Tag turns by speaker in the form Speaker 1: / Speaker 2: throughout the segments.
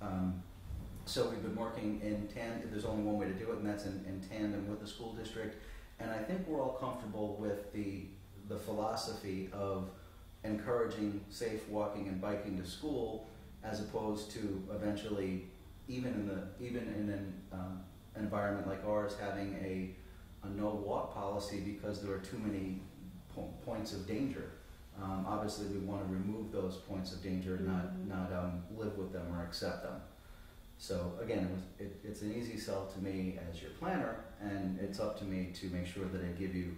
Speaker 1: Um, so we've been working in tandem, there's only one way to do it, and that's in, in tandem with the school district. And I think we're all comfortable with the, the philosophy of encouraging safe walking and biking to school as opposed to eventually, even in the, even in an um, environment like ours, having a, a no walk policy because there are too many po- points of danger. Um, obviously, we want to remove those points of danger, not,
Speaker 2: Mhm.
Speaker 1: not um, live with them or accept them. So again, it was, it, it's an easy sell to me as your planner, and it's up to me to make sure that I give you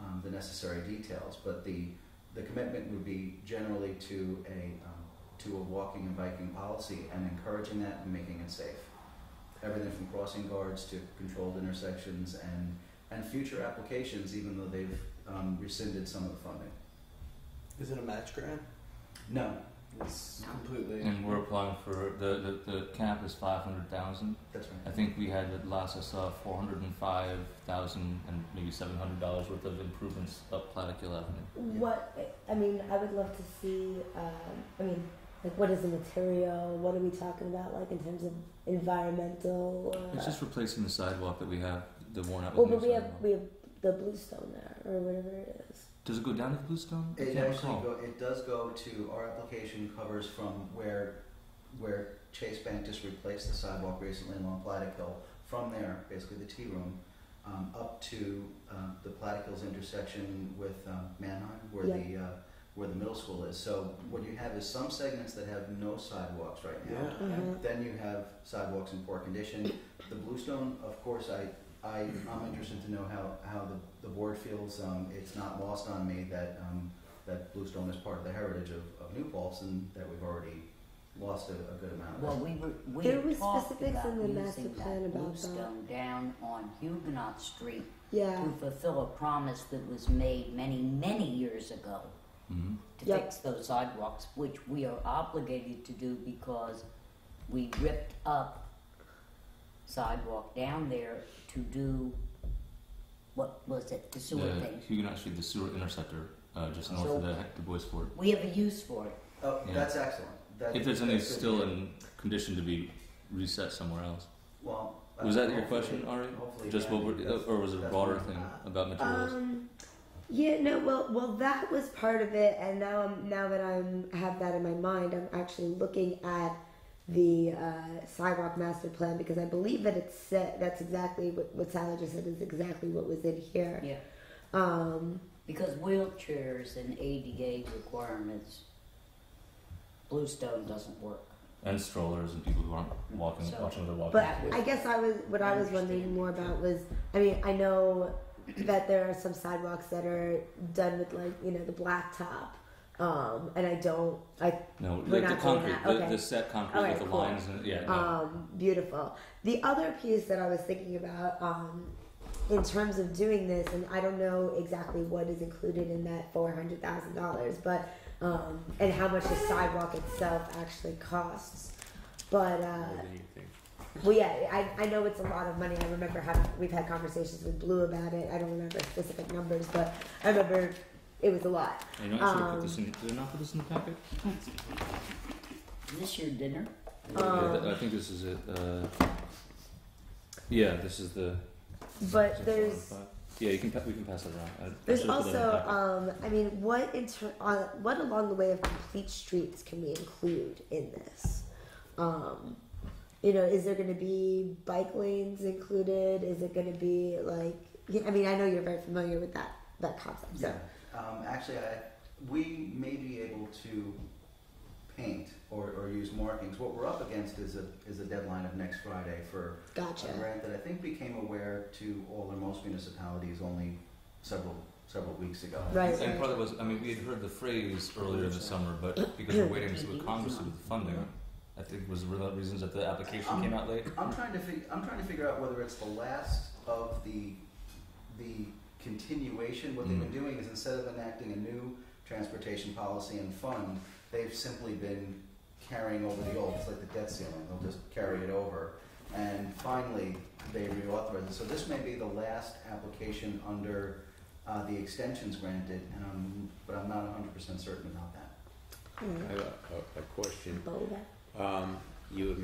Speaker 1: um, the necessary details. But the the commitment would be generally to a um, to a walking and biking policy and encouraging that and making it safe. Everything from crossing guards to controlled intersections and and future applications, even though they've um, rescinded some of the funding.
Speaker 3: Is it a match grant?
Speaker 1: No,
Speaker 3: It's completely.
Speaker 4: And we're applying for the, the, the cap is five hundred thousand.
Speaker 1: that's right.
Speaker 4: I think we had at last I saw four hundred and five thousand and maybe seven hundred dollars worth of improvements up Plattekill Avenue.
Speaker 2: What I mean, I would love to see. Um, I mean, like, what is the material? What are we talking about? Like in terms of environmental. Uh,
Speaker 4: It's just replacing the sidewalk that we have, the worn out.
Speaker 2: well,
Speaker 4: with new
Speaker 2: but we have
Speaker 4: sidewalk.
Speaker 2: we have the bluestone there or whatever it is.
Speaker 4: Does it go down to the Bluestone? I
Speaker 1: It
Speaker 4: can't
Speaker 1: actually
Speaker 4: recall.
Speaker 1: go, it does go to, our application covers from where, where Chase Bank just replaced the sidewalk recently along Plattekill. From there, basically the tea room, um, up to, um, the Platte Hills intersection with, um, Manheim, where
Speaker 2: Yeah.
Speaker 1: the, uh, where the middle school is. So what you have is some segments that have no sidewalks right now.
Speaker 3: Yeah.
Speaker 2: Mhm.
Speaker 1: Then you have sidewalks in poor condition. The Bluestone, of course, I, I, I'm interested to know how, how the, the board feels. Um, it's not lost on me that, um, that Bluestone is part of the heritage of, of New Paltz and that we've already lost a, a good amount of
Speaker 5: Well, we were, we
Speaker 2: There
Speaker 5: had
Speaker 2: was
Speaker 5: talked
Speaker 2: specifics
Speaker 5: about
Speaker 2: in the master
Speaker 5: using
Speaker 2: plan
Speaker 5: that
Speaker 2: about that.
Speaker 5: bluestone down on Huguenot Street
Speaker 2: Yeah.
Speaker 5: to fulfill a promise that was made many, many years ago
Speaker 4: Mhm.
Speaker 5: to
Speaker 2: Yep.
Speaker 5: fix those sidewalks, which we are obligated to do because we ripped up sidewalk down there to do what was it, the sewer
Speaker 4: the
Speaker 5: thing.
Speaker 4: Huguenot Street, the sewer interceptor, uh, just north of the Du Bois Fort.
Speaker 5: We have a use for it.
Speaker 1: Oh,
Speaker 4: Yeah.
Speaker 1: that's excellent. That-
Speaker 4: If there's any
Speaker 1: that's good.
Speaker 4: still in condition to be reset somewhere else.
Speaker 1: Well. uh,
Speaker 4: Was that your
Speaker 1: hopefully-
Speaker 4: question, Ari?
Speaker 1: hopefully
Speaker 4: Just what
Speaker 1: that-
Speaker 4: we're,
Speaker 1: that's-
Speaker 4: or was it a
Speaker 1: that's
Speaker 4: broader
Speaker 1: what-
Speaker 4: thing about materials?
Speaker 2: Um, yeah, no, well, well, that was part of it, and now I'm now that I'm have that in my mind, I'm actually looking at the uh, sidewalk master plan because I believe that it's set. That's exactly what what Sally just said is exactly what was in here.
Speaker 5: Yeah.
Speaker 2: Um,
Speaker 5: Because wheelchairs and ADA requirements, Bluestone doesn't work.
Speaker 4: and strollers and people who aren't walking,
Speaker 5: So-
Speaker 4: watching their walking.
Speaker 2: but
Speaker 5: That was-
Speaker 2: I guess I was what I was wondering
Speaker 5: Understand.
Speaker 2: more about was I mean I know that there are some sidewalks that are done with like you know the blacktop, um, and I don't I we're
Speaker 4: no, like the
Speaker 2: not doing
Speaker 4: concrete,
Speaker 2: that,
Speaker 4: the,
Speaker 2: okay.
Speaker 4: the set concrete
Speaker 2: All right,
Speaker 4: with the
Speaker 2: cool.
Speaker 4: lines and yeah. No.
Speaker 2: Um, beautiful. The other piece that I was thinking about, um, in terms of doing this, and I don't know exactly what is included in that four hundred thousand dollars, but um, and how much the sidewalk itself actually costs. But uh, well, yeah, I, I know it's a lot of money. I remember having we've had conversations with Blue about it. I don't remember specific numbers, but I remember it was a lot.
Speaker 4: And you know, I should have
Speaker 2: um,
Speaker 4: put this in. Did I not put this in the packet?
Speaker 5: Is this your dinner?
Speaker 4: yeah,
Speaker 2: Um,
Speaker 4: th- I think this is it. Uh, yeah, this is the.
Speaker 2: But
Speaker 4: is it
Speaker 2: there's.
Speaker 4: 405? Yeah, you can. pa- We can pass it around. I- I
Speaker 2: There's
Speaker 4: should've put it in the
Speaker 2: also,
Speaker 4: packet.
Speaker 2: um, I mean, what inter- uh, what along the way of complete streets can we include in this? Um, you know, is there going to be bike lanes included? Is it going to be like? yeah, I mean, I know you're very familiar with that that concept. So,
Speaker 1: Yeah, um, actually, I, we may be able to paint or, or use markings. What we're up against is a, is a deadline of next Friday for a
Speaker 2: gotcha.
Speaker 1: grant that I think became aware to all or most municipalities only several, several weeks ago.
Speaker 2: uh, Right.
Speaker 4: And part of it was, I mean, we had heard the phrase earlier in the summer, but because we're waiting to see what Congress did with the funding, I think was one of the reasons that the application came out late.
Speaker 1: I'm trying to fig- I'm trying to figure out whether it's the last of the the continuation. What they've
Speaker 4: Mm.
Speaker 1: been doing is instead of enacting a new transportation policy and fund, they've simply been carrying over the old. It's like the debt ceiling; they'll just carry it over. And finally, they reauthorize it. So this may be the last application under uh, the extensions granted, and I'm, but I'm not 100 percent certain about that.
Speaker 2: All
Speaker 6: I
Speaker 2: right.
Speaker 6: have a, a- a question.
Speaker 2: Bold.
Speaker 6: Um, you had